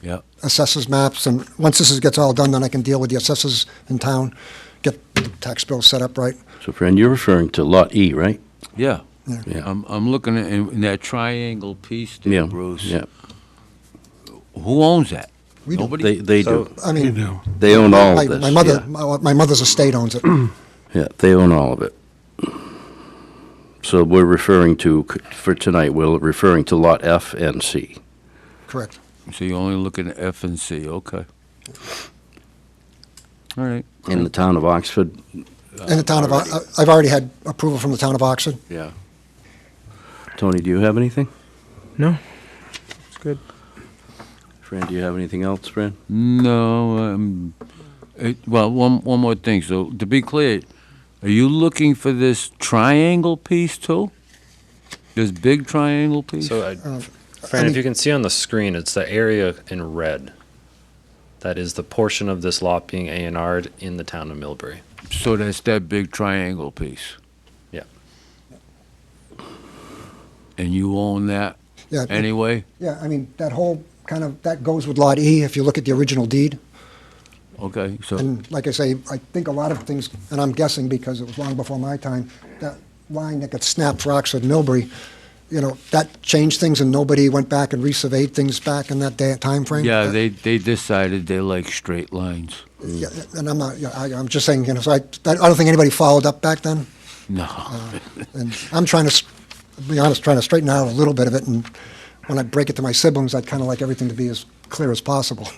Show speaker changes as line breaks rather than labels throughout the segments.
Yeah.
assessors maps, and once this is- gets all done, then I can deal with the assessors in town, get the tax bill set up right.
So Fran, you're referring to Lot E, right?
Yeah.
Yeah.
Yeah.
I'm, I'm looking at, in that triangle piece
Yeah,
there, Bruce.
Yeah,
Who owns that?
We don't.
Nobody?
they, they
So-
do.
I mean,
They own all
my
of this.
my mother,
yeah.
my my mother's estate owns it.
Yeah, they own all of it. So we're referring to, for tonight, we're referring to Lot F and C.
Correct.
So you're only looking at F and C, okay. All right.
In the town of Oxford,
And the town of, I- I've already had approval from the town of Oxford.
Yeah. Tony, do you have anything?
No. It's good.
Fran, do you have anything else, Fran?
No, um, it, well, one, one more thing. So to be clear, are you looking for this triangle piece too? This big triangle piece?
So, I,
Um, I
Fran,
mean-
if you can see on the screen, it's the area in red. That is the portion of this lot being A and R'd in the town of Millbury.
So that's that big triangle piece.
Yeah.
And you own that
Yeah,
anyway?
yeah, I mean, that whole kind of, that goes with Lot E, if you look at the original deed.
Okay, so,
And like I say, I think a lot of things, and I'm guessing because it was long before my time, that line that got snapped for Oxford Millbury, you know, that changed things and nobody went back and resurveyed things back in that day, timeframe.
yeah,
Uh,
they, they decided they like straight lines.
yeah, And I'm not, yeah, I, I'm just saying, you know, so I, I don't think anybody followed up back then. Uh,
No,
And I'm trying to, s- be honest, trying to straighten out a little bit of it. And when I break it to my siblings, I'd kind of like everything to be as clear as possible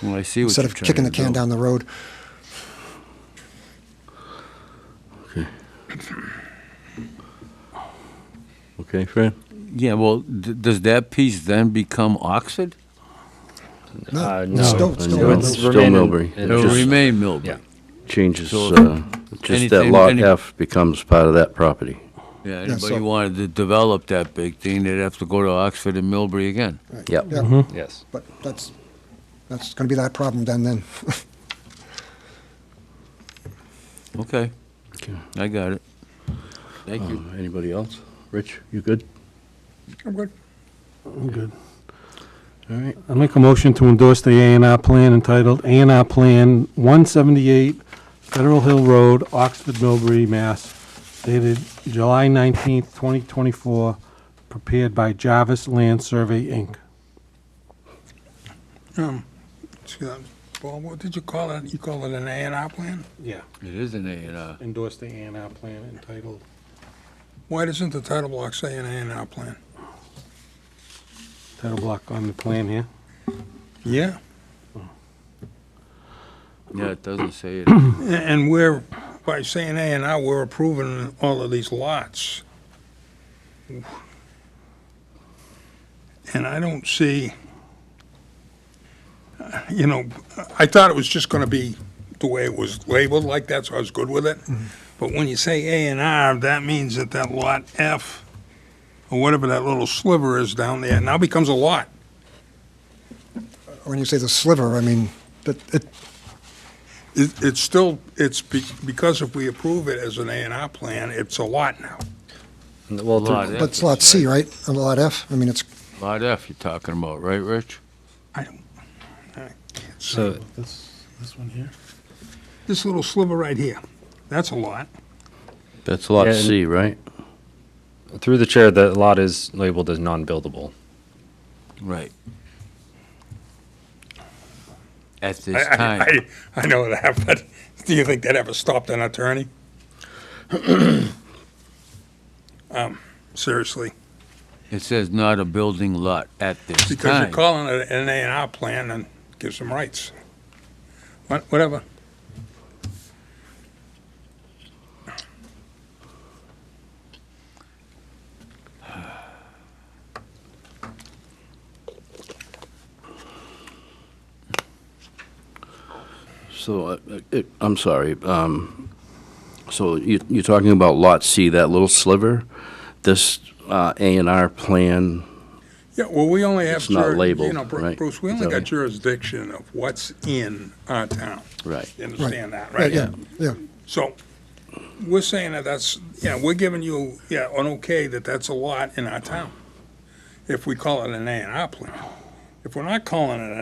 well, I see what
instead
you're
of kicking the can
trying to do.
down the road.
Okay, Fran?
Yeah, well, d- does that piece then become Oxford?
Uh,
it's Still,
Uh,
no.
still
no.
Millbury.
It's
Still
remaining-
Millbury.
it
It'll
just-
remain Millbury.
Yeah.
Changes,
So-
uh, just that
Anything-
Lot
any-
F becomes part of that property.
Yeah,
Yeah,
anybody
so-
wanted to develop that big thing, they'd have to go to Oxford and Millbury again.
Yep.
Yeah.
Yes.
But that's, that's going to be that problem then, then.
Okay,
Okay.
I got it. Thank you.
Um, Anybody else? Rich, you good?
I'm good.
I'm good.
All right.
I make a motion to endorse the A and R plan entitled A and R Plan 178 Federal Hill Road, Oxford, Milbury, Mass, dated July 19th, 2024, prepared by Jarvis Land Survey, Inc.
Um, excuse me, Paul, what did you call it? You call it an A and R plan?
Yeah,
Uh-huh.
It is an A and R.
endorse the A and R plan entitled,
Why doesn't the title block say an A and R plan?
title block on the plan here.
Yeah.
Yeah, it doesn't say it.
And we're, by saying A and R, we're approving all of these lots. And I don't see, uh, you know, I thought it was just gonna be the way it was labeled like that, so I was good with it. But when you say A and R, that means that that lot F, or whatever that little sliver is down there, now becomes a lot.
When you say the sliver, I mean, that, it,
It, it's still, it's be- because if we approve it as an A and R plan, it's a lot now.
And the- Well, the-
Lot F.
but it's lot C, right? And lot F, I mean, it's,
Lot F you're talking about, right, Rich?
I don't, I can't see.
so
This, this one here?
This little sliver right here, that's a lot.
That's Lot
Yeah, and-
C, right?
through the chair, the lot is labeled as non-buildable.
Right. At this
I- I-
time.
I, I know that, but do you think that ever stopped an attorney? Um, Seriously,
It says not a building lot at this
because you're
time.
calling it an A and R plan and gives them rights. What- Whatever.
So, uh, it- I'm sorry, um, so you- you're talking about Lot C, that little sliver? This uh, A and R plan,
Yeah, well, we only have.
It's not
jur- You
labeled,
know, Bru-
right?
Bruce, we
Is
only
that
got
right?
jurisdiction of what's in our town.
right?
You understand that,
right,
right?
yeah, yeah.
So, we're saying that that's, yeah, we're giving you, yeah, an okay that that's a lot in our town, if we call it an A and R plan. If we're not calling it